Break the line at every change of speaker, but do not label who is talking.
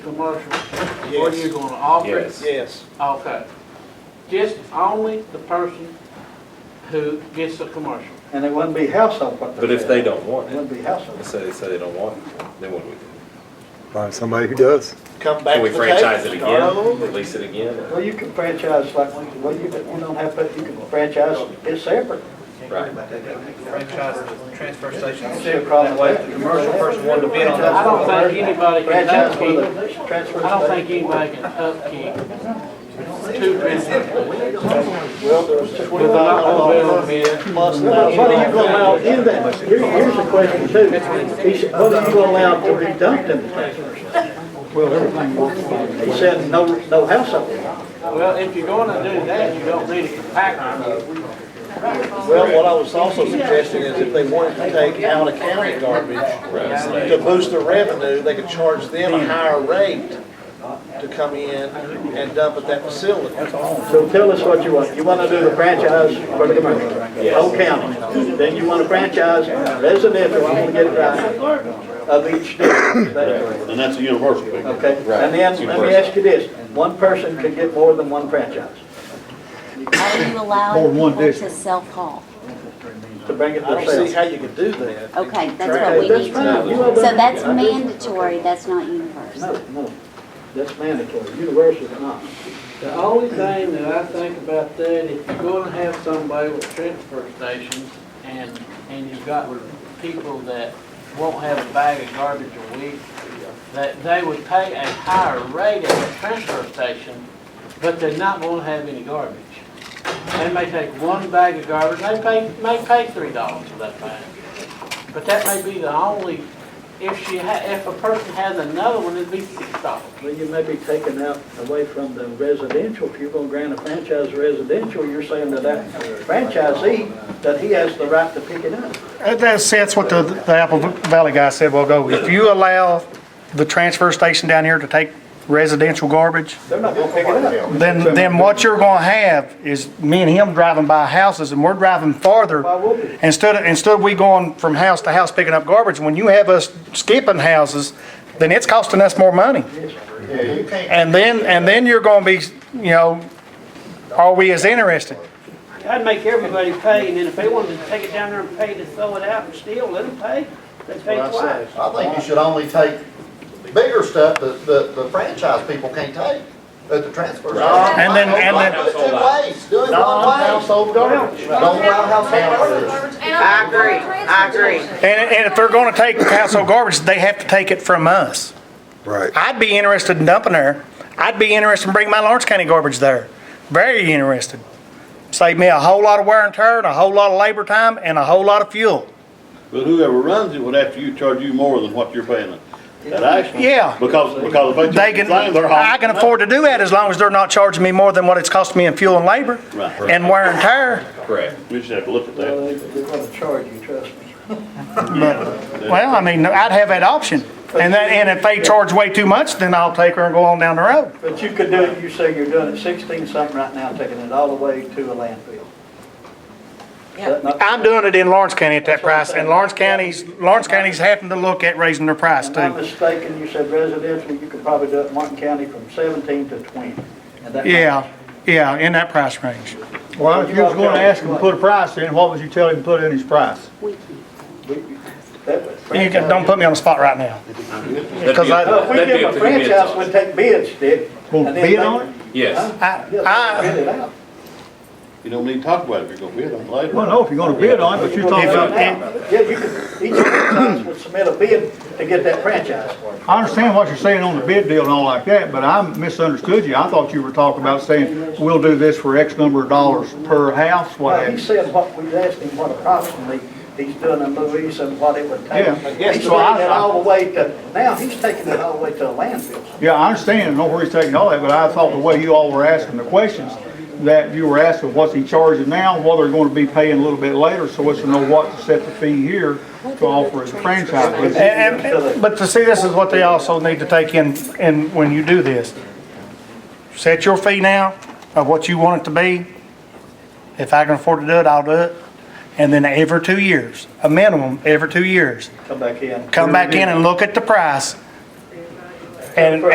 commercial? Or
Yes.
you gonna offer it?
Yes.
Yes,
Okay. Just only the person who gets the commercial.
And it wouldn't be house up what they're
But if they
saying.
don't want
It
it,
wouldn't be house
let's
up.
say they say they don't want it, then what do we do?
Find somebody who does.
come back
Can
to
we
the table.
franchise it
start
again,
over.
release it again, or-
Well, you can franchise like, well, you can, you don't have to, you can franchise it separate.
right?
franchise the transfer station
That's
separate,
the problem
that way
with
if
that.
the commercial person wanted to bid on
I
that.
don't think anybody can
Franchise for
upkeep,
the transfer
I don't think
station.
anybody can upkeep two businesses.
Well, there's just.
We're not gonna be able to bid.
Plus, what what are you gonna allow in that? Here- Here's the question too. He said, what are you gonna allow to be dumped in the transfer station?
Well, everything works.
He said, no, no house up there.
Well, if you're gonna do that, you don't need a compactor.
Well, what I was also suggesting is if they wanted to take out of county garbage to boost their revenue, they could charge them a higher rate to come in and dump at that facility.
So tell us what you want. You wanna do the franchise for the commercial, whole county. Then you wanna franchise residential, you wanna get it right, of each district. That's correct.
And that's a universal thing.
Okay, and then, let me ask you this, one person can get more than one franchise
Are you
Or
allowing
one
people to
district.
self-haul?
to bring it
I don't see
themselves.
how you could do that.
Okay, that's what
Okay,
we
that's
need to
fine.
know.
You all
So
done-
that's
I did-
mandatory, that's not universal.
No, no, that's mandatory, universal is not.
The only thing that I think about that, if you're gonna have somebody with transfer stations and, and you've got people that won't have a bag of garbage a week, that they would pay a higher rate at the transfer station, but they're not gonna have any garbage. They may take one bag of garbage, they pay, may pay three dollars for that bag. But that may be the only, if she ha, if a person has another one, it'd be six dollars.
Well, you may be taken out away from the residential, if you're gonna grant a franchise residential, you're saying that that franchisee, that he has the right to pick it up.
Uh, That's, that's what the, the Apple Valley guy said, well, go, if you allow the transfer station down here to take residential garbage,
They're not gonna pick it up.
then, then what you're gonna have is me and him driving by houses, and we're driving farther.
Why would we?
Instead, of- instead of we going from house to house picking up garbage, when you have us skipping houses, then it's costing us more money. And then, and then you're gonna be, you know, are we as interested?
I'd make everybody pay, and then if they wanted to take it down there and pay to throw it out and steal, let them pay. They pay twice.
I think you should only take bigger stuff that the, the franchise people can't take at the transfer station.
And then- and then-
Do it two ways, do it one way.
Non-household garbage.
Don't allow household garbage.
I agree, I agree.
And, and if they're gonna take household garbage, they have to take it from us.
Right.
I'd be interested in dumping there. I'd be interested in bringing my Lawrence County garbage there. Very interested. Save me a whole lot of wear and tear and a whole lot of labor time and a whole lot of fuel.
But whoever runs it would have to charge you more than what you're paying them. That actually.
Yeah.
Because, because if
They
they
can,
take the same, they're
I can afford to do that as long as they're not charging me more than what it's costing me in fuel and labor
Right.
and wear and tear.
Correct.
We just have to look at that.
Well, They're gonna charge you, trust me.
Well, I mean, I'd have that option. And then, and if they charge way too much, then I'll take her and go on down the road.
But you could do, it. you say you're doing it sixteen something right now, taking it all the way to a landfill. Is that not-
I'm doing it in Lawrence County at that
That's what I'm
price and
saying.
Lawrence County's, Lawrence County's having to look at raising their price
If I'm
too.
not mistaken, you said residential, you could probably do it in Martin County from seventeen to twenty. And that-
Yeah, yeah, in that price range.
Well, if you was gonna ask him to put a price in, what would you tell him to put in his price?
We can't.
we- that was-
You can- don't put me on the spot right now. Because
Well,
I,
If we give them a franchise, we'd take bids, Dick.
Well,
and then
bid
they-
on it?
Yes,
Yeah, they
I-
bid it out.
You don't need to talk about it if you're gonna bid on it later.
Well, no, if you're gonna bid on it, but you're talking about,
Yeah, you could, each franchise would submit a bid to get that franchise.
I understand what you're saying on the bid deal and all like that, but I misunderstood you. I thought you were talking about saying, we'll do this for X number of dollars per house, what
Well,
have
he
you.
said what, we asked him what approximately he's doing in movies and what it would take.
Yeah.
He's
So I-
taking it all the way to, now he's taking it all the way to a landfill.
Yeah, I understand, and know where he's taking all that, but I thought the way you all were asking the questions, that you were asking, what's he charging now, what they're gonna be paying a little bit later, so as to know what to set the fee here to offer as a franchise. But it's-
and- and- but to see, this is what they also need to take in, in when you do this. Set your fee now of what you want it to be. If I can afford to do it, I'll do it. And then every two years, a minimum, every two years,
Come back in.
come back in and look at the price. And,